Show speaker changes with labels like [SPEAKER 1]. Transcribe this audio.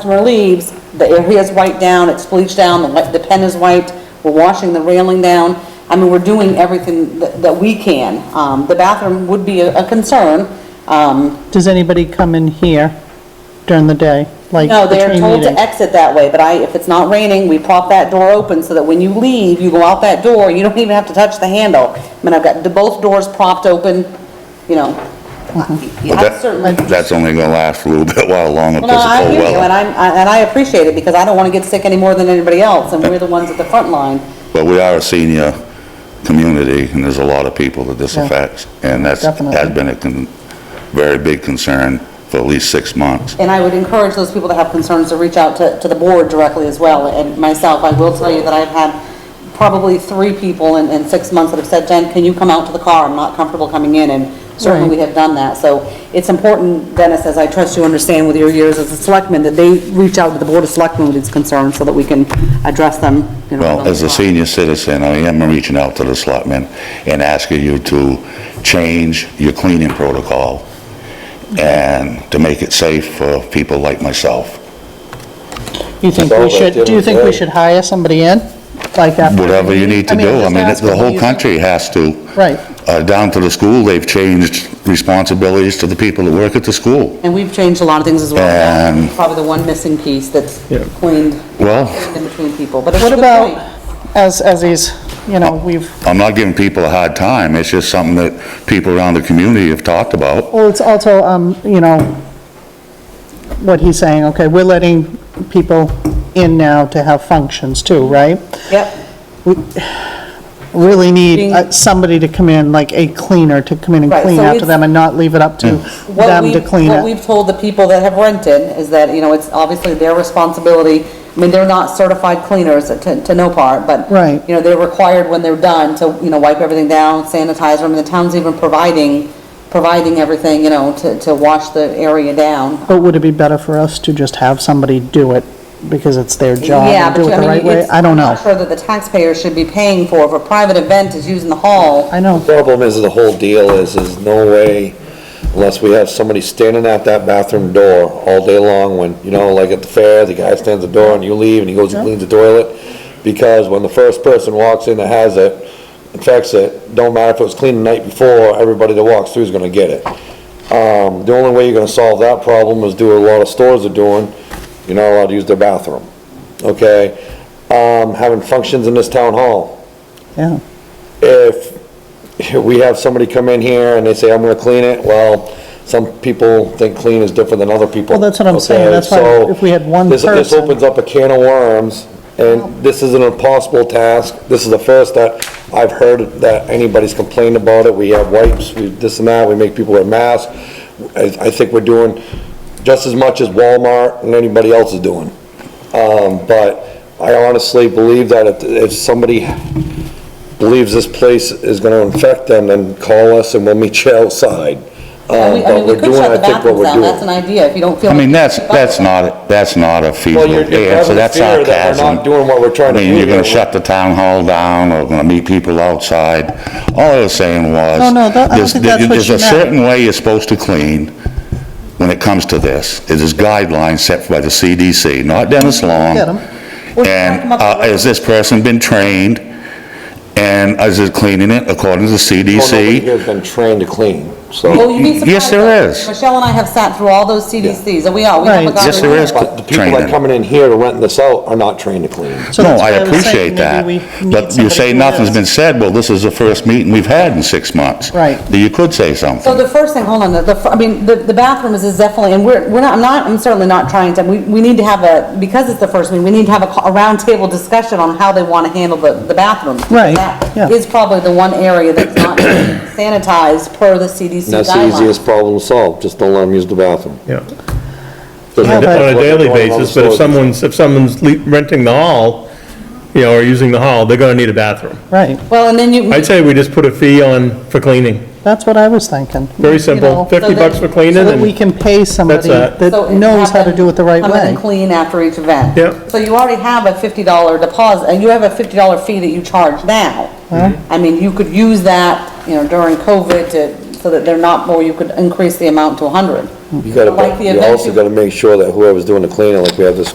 [SPEAKER 1] customer leaves, the area is wiped down, it's bleached down, the wi- the pen is wiped, we're washing the railing down. I mean, we're doing everything that that we can. Um, The bathroom would be a a concern. Um,
[SPEAKER 2] Does anybody come in here during the day, like
[SPEAKER 1] No, they're
[SPEAKER 2] between
[SPEAKER 1] told to
[SPEAKER 2] meetings?
[SPEAKER 1] exit that way, but I, if it's not raining, we prop that door open so that when you leave, you go out that door, you don't even have to touch the handle. I mean, I've got the- both doors propped open, you know. I- I
[SPEAKER 3] But
[SPEAKER 1] certainly.
[SPEAKER 3] that, that's only gonna last a little bit while longer
[SPEAKER 1] Well, no,
[SPEAKER 3] because of
[SPEAKER 1] I
[SPEAKER 3] cold
[SPEAKER 1] hear you, and
[SPEAKER 3] weather.
[SPEAKER 1] I'm, I- and I appreciate it, because I don't want to get sick any more than anybody else, and we're the ones at the front line.
[SPEAKER 3] But we are a senior community and there's a lot of people that this
[SPEAKER 2] Yeah.
[SPEAKER 3] affects. And that's,
[SPEAKER 2] Definitely.
[SPEAKER 3] has been a con, very big concern for at least six months.
[SPEAKER 1] And I would encourage those people that have concerns to reach out to, to the board directly as well, and myself, I will tell you that I've had probably three people in, in six months that have said, Jen, can you come out to the car, I'm not comfortable coming in, and certainly we have done that, so it's important, Dennis, as I trust you understand with your years as a selectman, that they reach out to the board of selectmen with these concerns, so that we can address them, you know.
[SPEAKER 3] Well,
[SPEAKER 1] on the
[SPEAKER 3] as a
[SPEAKER 1] fly.
[SPEAKER 3] senior citizen, I am reaching out to the selectmen and asking you to change your cleaning protocol and to make it safe for people like myself.
[SPEAKER 2] You think we should, do you think we should hire somebody in, like after?
[SPEAKER 3] Whatever you need to do. I
[SPEAKER 2] I'm
[SPEAKER 3] mean,
[SPEAKER 2] just asking,
[SPEAKER 3] the
[SPEAKER 2] what do
[SPEAKER 3] whole
[SPEAKER 2] you think?
[SPEAKER 3] country has to.
[SPEAKER 2] Right.
[SPEAKER 3] Uh, down to the school, they've changed responsibilities to the people that work at the school.
[SPEAKER 1] And we've changed a lot of things as well,
[SPEAKER 3] Um,
[SPEAKER 1] probably the one missing piece that's cleaned
[SPEAKER 3] Well-
[SPEAKER 1] in between people, but it's a
[SPEAKER 2] What
[SPEAKER 1] good point.
[SPEAKER 2] about, as, as these, you know, we've,
[SPEAKER 3] I'm not giving people a hard time, it's just something that people around the community have talked about.
[SPEAKER 2] well, it's also, um, you know, what he's saying, okay, we're letting people in now to have functions too, right?
[SPEAKER 1] Yep.
[SPEAKER 2] Really need
[SPEAKER 1] Being-
[SPEAKER 2] uh, somebody to come in, like a cleaner to come in and
[SPEAKER 1] Right,
[SPEAKER 2] clean
[SPEAKER 1] so
[SPEAKER 2] after
[SPEAKER 1] it's- Mm.
[SPEAKER 2] them and not leave it up to
[SPEAKER 1] What
[SPEAKER 2] them to
[SPEAKER 1] we've-
[SPEAKER 2] clean
[SPEAKER 1] What
[SPEAKER 2] it.
[SPEAKER 1] we've told the people that have rented is that, you know, it's obviously their responsibility. I mean, they're not certified cleaners to, to no part, but.
[SPEAKER 2] Right.
[SPEAKER 1] You know, they're required when they're done to, you know, wipe everything down, sanitize them. And the town's even providing, providing everything, you know, to, to wash the area down.
[SPEAKER 2] But would it be better for us to just have somebody do it because it's their job
[SPEAKER 1] Yeah,
[SPEAKER 2] and
[SPEAKER 1] but
[SPEAKER 2] do
[SPEAKER 1] you-
[SPEAKER 2] it the
[SPEAKER 1] I
[SPEAKER 2] right
[SPEAKER 1] mean,
[SPEAKER 2] way?
[SPEAKER 1] it's.
[SPEAKER 2] I don't
[SPEAKER 1] I'm
[SPEAKER 2] know.
[SPEAKER 1] not sure that the taxpayer should be paying for if a private event is using the hall.
[SPEAKER 2] I know.
[SPEAKER 4] Problem is, the whole deal is, is no way, unless we have somebody standing at that bathroom door all day long when, you know, like at the fair, the guy stands at the door and you leave and he goes and cleans the toilet. Because when the first person walks in that has it, infects it, don't matter if it was clean the night before, everybody that walks through is gonna get it. Um, the only way you're gonna solve that problem is do what a lot of stores are doing, you're not allowed to use their bathroom, okay? Um, having functions in this town hall,
[SPEAKER 2] Yeah.
[SPEAKER 4] if we have somebody come in here and they say, I'm gonna clean it, well, some people think clean is different than other people.
[SPEAKER 2] Well, that's what I'm saying.
[SPEAKER 4] okay?
[SPEAKER 2] That's why
[SPEAKER 4] So,
[SPEAKER 2] if we had one
[SPEAKER 4] this- This
[SPEAKER 2] person-
[SPEAKER 4] opens up a can of worms, and this is an impossible task. This is the first that I've heard that anybody's complained about it. We have wipes, we this and that, we make people wear masks. I, I think we're doing just as much as Walmart and anybody else is doing. Um, but I honestly believe that if, if somebody believes this place is gonna infect them, then call us and we'll meet you outside.
[SPEAKER 1] I
[SPEAKER 4] Um,
[SPEAKER 1] mean, I mean, we
[SPEAKER 4] but we're
[SPEAKER 1] could
[SPEAKER 4] doing,
[SPEAKER 1] shut
[SPEAKER 4] I
[SPEAKER 1] the
[SPEAKER 4] think, what
[SPEAKER 1] bathrooms
[SPEAKER 4] we're
[SPEAKER 1] down. That's an
[SPEAKER 4] doing.
[SPEAKER 1] idea if you don't feel.
[SPEAKER 3] I
[SPEAKER 1] like-
[SPEAKER 3] mean, that's, that's not, that's not a feasible
[SPEAKER 4] you're- you're
[SPEAKER 3] answer,
[SPEAKER 4] having
[SPEAKER 3] that's
[SPEAKER 4] fear that we're not
[SPEAKER 3] sarcasm.
[SPEAKER 4] doing what we're trying to
[SPEAKER 3] I mean,
[SPEAKER 4] do
[SPEAKER 3] you're gonna
[SPEAKER 4] here.
[SPEAKER 3] shut the town hall down, or gonna meet people outside. All I was saying was.
[SPEAKER 2] No, no, that- I don't
[SPEAKER 3] there's-
[SPEAKER 2] think that's what
[SPEAKER 3] There's
[SPEAKER 2] she
[SPEAKER 3] a
[SPEAKER 2] meant.
[SPEAKER 3] certain way you're supposed to clean when it comes to this. It is guidelines set by the CDC, not Dennis Long.
[SPEAKER 2] Get 'em.
[SPEAKER 3] And uh, has this person been trained? And is it cleaning it according to the
[SPEAKER 4] Well, nobody
[SPEAKER 3] CDC?
[SPEAKER 4] here's been trained to clean, so.
[SPEAKER 1] Well, you'd be surprised.
[SPEAKER 3] Yes, there
[SPEAKER 1] though.
[SPEAKER 3] is.
[SPEAKER 1] Michelle and I have sat through all those CDCs, and Oh, we are, we haven't
[SPEAKER 2] Right.
[SPEAKER 1] gotten.
[SPEAKER 3] Yes, there is.
[SPEAKER 4] But the people
[SPEAKER 3] Training.
[SPEAKER 4] that coming in here to rent this out are not trained to clean.
[SPEAKER 2] So
[SPEAKER 3] No,
[SPEAKER 2] that's why
[SPEAKER 3] I
[SPEAKER 2] was saying
[SPEAKER 3] appreciate that,
[SPEAKER 2] maybe we need
[SPEAKER 3] but you
[SPEAKER 2] somebody
[SPEAKER 3] say
[SPEAKER 2] who
[SPEAKER 3] nothing's
[SPEAKER 2] is-
[SPEAKER 3] been said, well, this is the first meeting we've had in six months.
[SPEAKER 2] Right.
[SPEAKER 3] You could say
[SPEAKER 1] So
[SPEAKER 3] something.
[SPEAKER 1] the first thing, hold on, the- the, fir- I mean, the, the bathroom is is definitely, and we're, we're not, I'm not, I'm certainly not trying to, we, we need to have a, because it's the first meeting, we need to have a, co- a roundtable discussion on how they want to handle the, the bathrooms.
[SPEAKER 2] Right, yeah.
[SPEAKER 1] That is probably the one area that's not sanitized per the CDC
[SPEAKER 4] And that's the
[SPEAKER 1] guidelines.
[SPEAKER 4] easiest problem to solve, just don't let them use the bathroom.
[SPEAKER 5] Yeah,
[SPEAKER 4] Doesn't
[SPEAKER 2] Yeah,
[SPEAKER 5] on
[SPEAKER 4] matter
[SPEAKER 2] but-
[SPEAKER 5] a
[SPEAKER 4] what they're
[SPEAKER 5] daily
[SPEAKER 4] doing on the
[SPEAKER 5] basis, but if
[SPEAKER 4] stores.
[SPEAKER 5] someone's, if someone's le- renting the hall, you know, or using the hall, they're gonna need a bathroom.
[SPEAKER 2] Right,
[SPEAKER 1] Well, and then you.
[SPEAKER 5] I'd say we just put a fee on for cleaning,
[SPEAKER 2] that's what I was thinking.
[SPEAKER 5] very
[SPEAKER 1] You know, so
[SPEAKER 5] simple, fifty
[SPEAKER 1] that-
[SPEAKER 5] bucks for
[SPEAKER 2] So
[SPEAKER 5] cleaning
[SPEAKER 2] that we
[SPEAKER 5] and,
[SPEAKER 2] can pay somebody
[SPEAKER 5] That's
[SPEAKER 2] that
[SPEAKER 5] it.
[SPEAKER 1] So and have
[SPEAKER 2] knows how to
[SPEAKER 1] them
[SPEAKER 2] do it the right
[SPEAKER 1] Come in and
[SPEAKER 2] way.
[SPEAKER 1] clean after each event.
[SPEAKER 5] Yep.
[SPEAKER 1] So you already have a fifty dollar deposit, and you have a fifty dollar fee that you charge now. I mean, you could
[SPEAKER 2] Hmm.
[SPEAKER 1] use that, you know, during COVID to, so that they're not, more. you could increase the amount to a hundred.
[SPEAKER 4] You gotta,
[SPEAKER 1] Like the
[SPEAKER 4] you also
[SPEAKER 1] event-
[SPEAKER 4] gotta make sure that whoever's doing the cleaning, like we have this